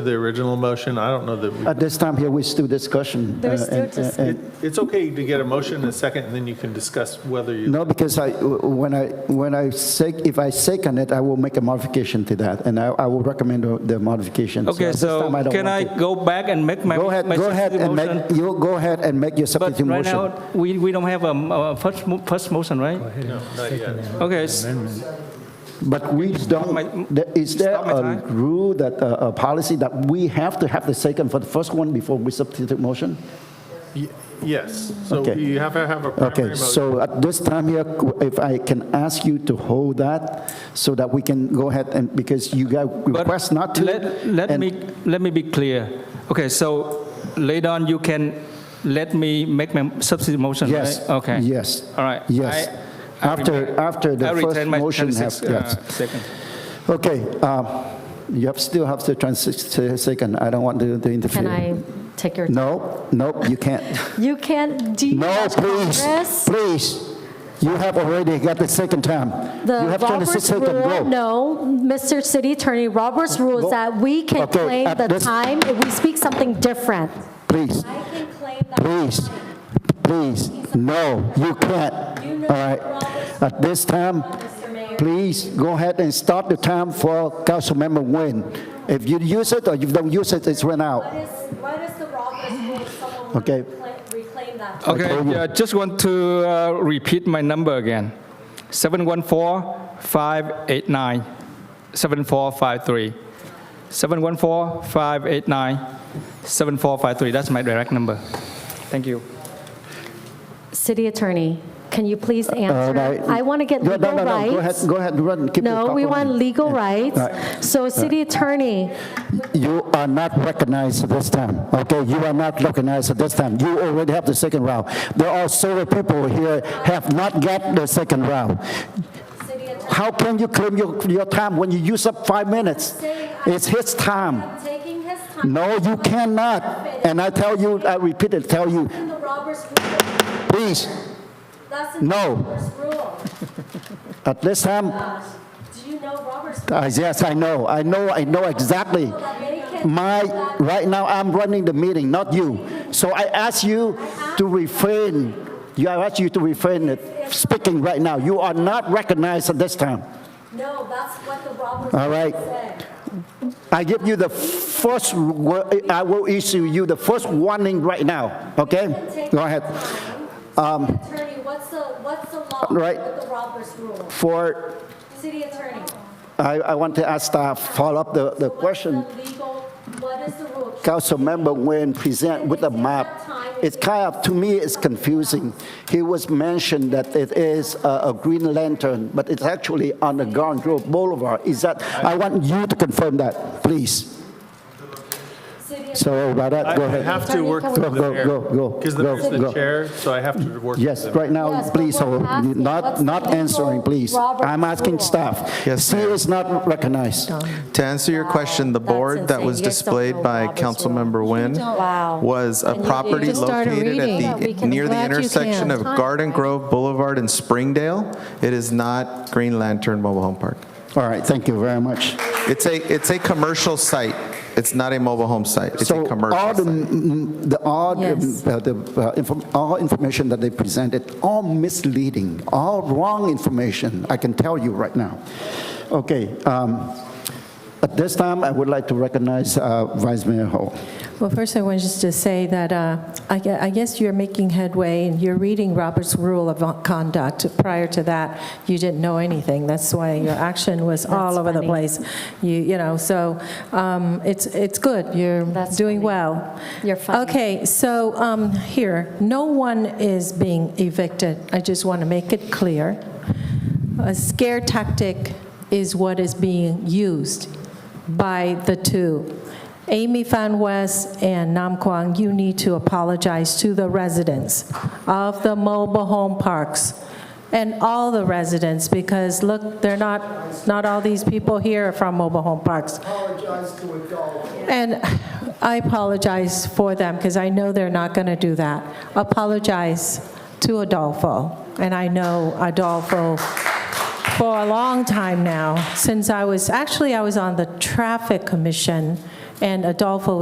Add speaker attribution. Speaker 1: The original motion, I don't know that, we-
Speaker 2: At this time here, we still discussion. uh,
Speaker 3: There's still
Speaker 2: and- and-
Speaker 1: it- it's okay to get a motion and a second, and then you can discuss whether you,
Speaker 2: No, because I, when I, when I say, if I second it, I will make a modification to that, and I, I will recommend the- the modification.
Speaker 4: Okay,
Speaker 2: at this
Speaker 4: so
Speaker 2: time, don't
Speaker 4: can I
Speaker 2: want to-
Speaker 4: go back and make my?
Speaker 2: Go ahead,
Speaker 4: my
Speaker 2: go ahead
Speaker 4: substitute
Speaker 2: and
Speaker 4: motion?
Speaker 2: make, you go ahead and make your
Speaker 4: But
Speaker 2: substitute
Speaker 4: right
Speaker 2: motion.
Speaker 4: now, we, we don't have a, m- a first, mo- first motion, right?
Speaker 1: no, not yet.
Speaker 4: Okay, s-
Speaker 2: But we
Speaker 4: my-
Speaker 2: don't, there- is there
Speaker 4: stop my
Speaker 2: a
Speaker 4: time.
Speaker 2: rule that, uh, a, a policy that we have to have the second for the first one before we substitute motion?
Speaker 1: Y- Yes, so
Speaker 2: Okay.
Speaker 1: you have to have a primary
Speaker 2: Okay,
Speaker 1: motion.
Speaker 2: so at this time here, if I can ask you to hold that so that we can go ahead and, because you got
Speaker 4: but
Speaker 2: request not to.
Speaker 4: Let, let
Speaker 2: and-
Speaker 4: me, let me be clear. Okay, so later on, you can let me make my substitute motion, right?
Speaker 2: Yes.
Speaker 4: Okay.
Speaker 2: Yes.
Speaker 4: All right.
Speaker 2: Yes.
Speaker 4: I- I
Speaker 2: After,
Speaker 4: remain-
Speaker 2: after the
Speaker 4: I
Speaker 2: first
Speaker 4: retain my
Speaker 2: motion
Speaker 4: 36,
Speaker 2: have, yes.
Speaker 4: uh, Second.
Speaker 2: Okay, um, you have, still have to transition, second, I don't want to to interfere.
Speaker 3: Can I take your?
Speaker 2: No, no, you can't.
Speaker 3: You can't do.
Speaker 2: No, please, please. You have already got the second time. You
Speaker 3: The
Speaker 2: have
Speaker 3: Roberts
Speaker 2: 22nd
Speaker 3: rule,
Speaker 2: go.
Speaker 3: no, Mr. City Attorney, Roberts rule
Speaker 2: Go.
Speaker 3: is that we can
Speaker 2: Okay,
Speaker 3: claim
Speaker 2: at
Speaker 3: the
Speaker 2: this-
Speaker 3: time if we speak something different.
Speaker 2: Please,
Speaker 3: I can claim that.
Speaker 2: please, please, no, you can't. All right. At this time, please go ahead and start the time for Councilmember Nguyen. If you use it or you don't use it, it's run out.
Speaker 3: is, what is the Roberts rule if someone
Speaker 2: wants Okay. Uh, to
Speaker 3: reclaim that?
Speaker 4: Okay, yeah, just want to uh, repeat my number again. 714-589-7453. 714-589-7453, that's my direct number. Thank you.
Speaker 3: City Attorney, can you please
Speaker 2: All
Speaker 3: answer?
Speaker 2: right.
Speaker 3: I want to get
Speaker 2: No,
Speaker 3: legal
Speaker 2: no, no,
Speaker 3: rights.
Speaker 2: no, Go ahead, go ahead, run, keep the
Speaker 3: No,
Speaker 2: clock
Speaker 3: we
Speaker 2: running.
Speaker 3: want legal
Speaker 2: Yeah.
Speaker 3: rights.
Speaker 2: All right.
Speaker 3: So City Attorney,
Speaker 2: You are not recognized this time, okay? You are not recognized this time. You already have the second round. There are several people here have not got the second round. How can you claim your, your time when you use up five minutes? It's his time.
Speaker 3: taking his time.
Speaker 2: No, you cannot. And I tell you, I repeat it, tell you,
Speaker 3: In the Roberts rule,
Speaker 2: please,
Speaker 3: that's in the
Speaker 2: No.
Speaker 3: Roberts rule.
Speaker 2: at this time,
Speaker 3: Do you know Roberts?
Speaker 2: I- yes, I know, I know, I know exactly. My, right now, I'm running the meeting, not you. So I ask you to refrain, you, I ask you to refrain it, speaking right now. You are not recognized at this time,
Speaker 3: No, that's what the Roberts
Speaker 2: all right?
Speaker 3: said.
Speaker 2: I give you the first, wo- I will issue you the first warning right now, okay? Go ahead. Um,
Speaker 3: Attorney, what's the, what's the law
Speaker 2: Right.
Speaker 3: with the Roberts rule?
Speaker 2: For,
Speaker 3: City Attorney.
Speaker 2: I, I want to ask staff, follow up the, the question.
Speaker 3: What's the legal, what is the rule?
Speaker 2: Councilmember Nguyen present with a map, it's kind of, to me, it's confusing. He was mentioned that it is a a green lantern, but it's actually on the Garden Grove Boulevard. Is that, I want you to confirm that, please.
Speaker 3: City
Speaker 2: So about that, go
Speaker 1: I I
Speaker 2: ahead.
Speaker 1: have to work
Speaker 3: Attorney,
Speaker 1: through
Speaker 3: can
Speaker 2: we-
Speaker 1: the mayor.
Speaker 2: Go, go, go,
Speaker 1: Because the
Speaker 2: go,
Speaker 1: mayor's the
Speaker 2: go.
Speaker 1: chair, so I have to work. with
Speaker 2: Yes,
Speaker 1: the mayor.
Speaker 2: right now,
Speaker 3: Yes, but
Speaker 2: please,
Speaker 3: we're
Speaker 2: hold.
Speaker 3: asking,
Speaker 2: not,
Speaker 3: what's
Speaker 2: not
Speaker 3: the
Speaker 2: answering,
Speaker 3: legal
Speaker 2: please.
Speaker 3: Robert's
Speaker 2: I'm asking
Speaker 3: rule?
Speaker 2: staff.
Speaker 5: Yes,
Speaker 2: She
Speaker 5: ma'am.
Speaker 2: is not recognized.
Speaker 5: To answer your question, the
Speaker 3: Wow, that's
Speaker 5: board that
Speaker 3: insane.
Speaker 5: was
Speaker 3: You guys don't know
Speaker 5: displayed by
Speaker 3: Robert's rules.
Speaker 5: Councilmember
Speaker 3: Wow.
Speaker 5: Nguyen was a
Speaker 3: And you
Speaker 5: property
Speaker 3: just started
Speaker 5: located
Speaker 3: reading. Yeah,
Speaker 5: at
Speaker 3: we
Speaker 5: the,
Speaker 3: can-
Speaker 5: near the
Speaker 3: glad you
Speaker 5: intersection
Speaker 3: can.
Speaker 5: of Garden Grove Boulevard and Springdale. It is not Green Lantern Mobile Home Park.
Speaker 2: All right, thank you very much.
Speaker 5: It's a, it's a commercial site. It's not a mobile home site. It's a
Speaker 2: So all
Speaker 5: commercial
Speaker 2: the,
Speaker 5: site.
Speaker 2: mm, the, all, the,
Speaker 3: Yes.
Speaker 2: uh, the, uh, inform- all information that they presented, all misleading, all wrong information, I can tell you right now. Okay, um, at this time, I would like to recognize uh, Vice Mayor Hall.
Speaker 6: Well, first, I wanted just to say that uh, I gue- I guess you're making headway, and you're reading Robert's Rule of Conduct. Prior to that, you didn't know anything. That's why your action was all over the
Speaker 3: funny.
Speaker 6: place. You you know, so um, it's it's good. You're
Speaker 3: That's
Speaker 6: doing
Speaker 3: funny.
Speaker 6: well.
Speaker 3: You're funny.
Speaker 6: Okay, so um, here, no one is being evicted. I just want to make it clear. A scare tactic is what is being used by the two. Amy Fan West and Nam Quang, you need to apologize to the residents of the mobile home parks and all the residents, because look, they're not, not all these people here are from mobile home parks. And I apologize for them, because I know they're not going to do that. Apologize to Adolfo, and I know Adolfo for a long time now, since I was, actually, I was on the Traffic Commission, and Adolfo